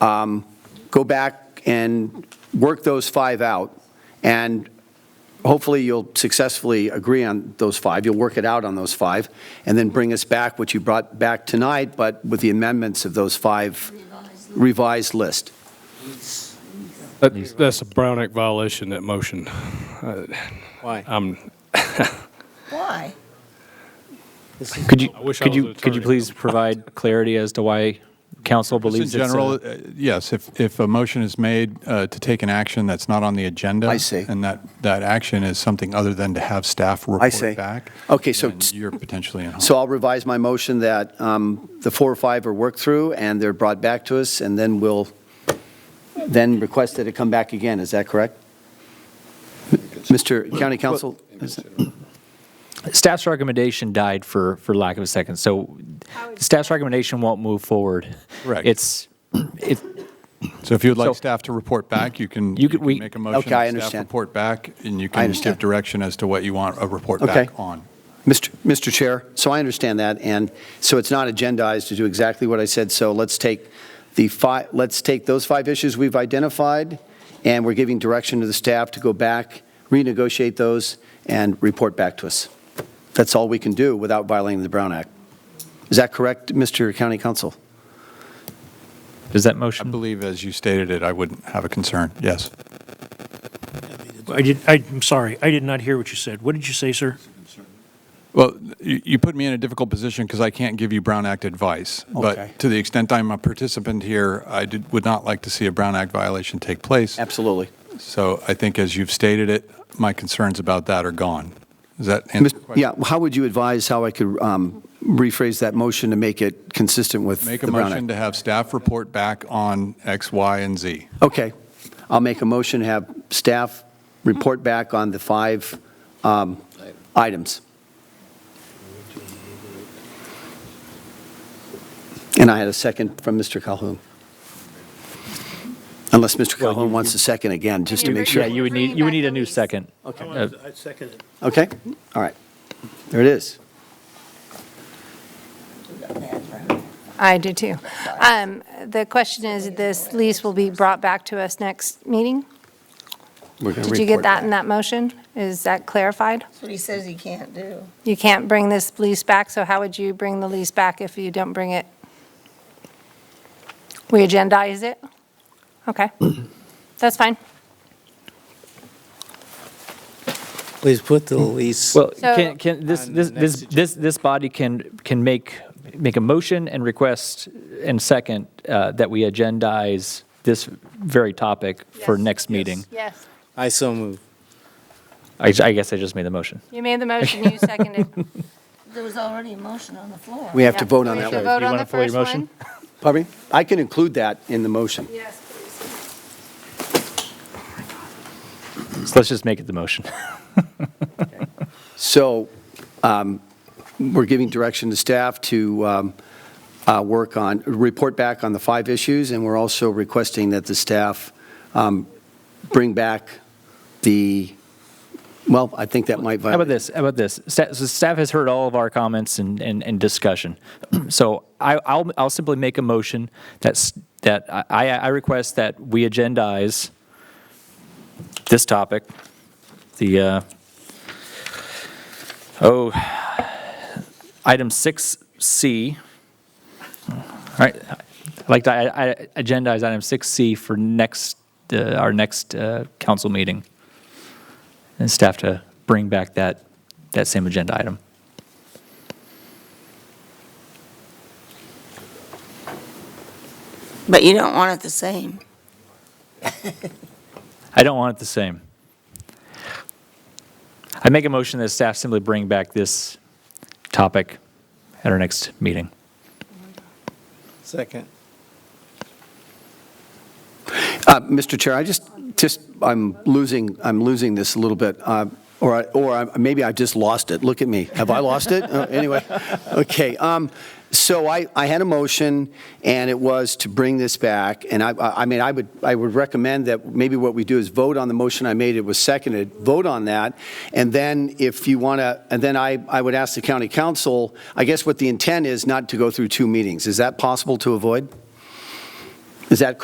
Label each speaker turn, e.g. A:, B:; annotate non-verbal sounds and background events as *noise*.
A: um, go back and work those five out, and hopefully you'll successfully agree on those five, you'll work it out on those five, and then bring us back what you brought back tonight, but with the amendments of those five revised list.
B: That- That's a Brown Act violation, that motion.
C: Why?
D: Why?
E: Could you,
B: I wish I
E: could
B: was
E: you,
B: an
E: could you
B: attorney. *laughs*
E: please provide clarity as to why council
C: In
E: believes it's
C: general,
E: a?
C: uh, yes, if, if a motion is made uh, to take an action that's not on the agenda.
A: I see.
C: And that, that action is something other than to have staff report
A: see.
C: back.
A: Okay, so
C: then
A: t-
C: You're potentially in. harm.
A: So I'll revise my motion that um, the four or five are worked through, and they're brought back to us, and then we'll, then request that it come back again, is that correct? Mr. County Council?
E: Staff's recommendation died for, for lack of a second, so staff's recommendation won't move forward.
C: Correct.
E: It's, it,
C: So if you'd
E: so-
C: like staff to report back, you can,
E: You
C: you
E: could-
C: can
E: we-
C: make a motion.
A: Okay, I
C: that Staff
A: understand.
C: report back, and you
A: I
C: can
A: understand.
C: give direction as to what you want a report
A: Okay.
C: back on.
A: Mr. Mr. Chair, so I understand that, and so it's not agendized to do exactly what I said, so let's take the five, let's take those five issues we've identified, and we're giving direction to the staff to go back, renegotiate those, and report back to us. That's all we can do without violating the Brown Act. Is that correct, Mr. County Council?
E: is that
C: I
E: motion?
C: believe, as you stated it, I wouldn't have a concern, yes.
F: I did, I- I'm sorry, I did not hear what you said. What did you say, sir?
C: Well, you, you put me in a difficult position because I can't give you Brown Act advice.
A: Okay.
C: But to the extent I'm a participant here, I did, would not like to see a Brown Act violation take place.
A: Absolutely.
C: So I think as you've stated it, my concerns about that are gone. Does that answer your
A: Mis-
C: question?
A: Yeah, how would you advise how I could um, rephrase that motion to make it consistent with the
C: Make a
A: Brown Act?
C: motion to have staff report back on X, Y, and Z.
A: Okay, I'll make a motion to have staff report back on the five um, items. And I had a second from Mr. Calhoun. Unless Mr. Calhoun wants a second again, just to make sure.
E: Yeah, you would need, you would need a new second. Uh,
F: I second it.
A: Okay, all right. There it is.
G: I do too. Um, The question is, this lease will be brought back to us next meeting?
A: We're gonna
G: Did you get
A: report
G: that in
A: back.
G: that motion? Is that clarified?
D: That's what he says he can't do.
G: You can't bring this lease back, so how would you bring the lease back if you don't bring it? We agendize it?
A: *clears throat*
G: Okay, that's fine.
H: Please put the lease.
E: Well,
G: So-
E: can, can, this,
H: On
E: this,
H: the
E: this,
H: next
E: this, this body can, can make, make a motion and request and second uh, that we agendize this very topic for
G: Yes.
E: next meeting.
G: Yes.
H: I so move.
E: I, I guess I just made the motion.
G: You made the motion,
A: *laughs*
G: you seconded.
D: There was already a motion on the floor.
A: We have to vote on that
G: We should
A: one.
G: vote
E: Do you
G: on
E: wanna
G: the
E: pull your
G: first
E: motion?
G: one.
A: Pardon me? I can include that in the motion.
G: Yes, please.
E: So let's just make it the motion.
A: So um, we're giving direction to staff to um, uh, work on, report back on the five issues, and we're also requesting that the staff um, bring back the, well, I think that might
E: How
A: violate.
E: about this? How about this? Staff, so staff has heard all of our comments and, and, and discussion. *clears throat* So I, I'll, I'll simply make a motion that's, that I, I I request that we agendize this topic, the, uh, oh, item 6C. All right, I'd like to, I, I agendize item 6C for next, uh, our next uh, council meeting and staff to bring back that, that same agenda item.
D: But you don't want it the same.
E: I don't want it the same. I make a motion that staff simply bring back this topic at our next meeting.
H: Second.
A: Uh, Mr. Chair, I just, just, I'm losing, I'm losing this a little bit, uh, or, I- or I- maybe I've just lost it. Look at me. Have I lost it? Uh, Anyway, okay. um, So I, I had a motion, and it was to bring this back, and I, I I mean, I would, I would recommend that maybe what we do is vote on the motion I made, it was seconded, vote on that, and then if you want to, and then I, I would ask the county council, I guess what the intent is not to go through two meetings. Is that possible to avoid? Is that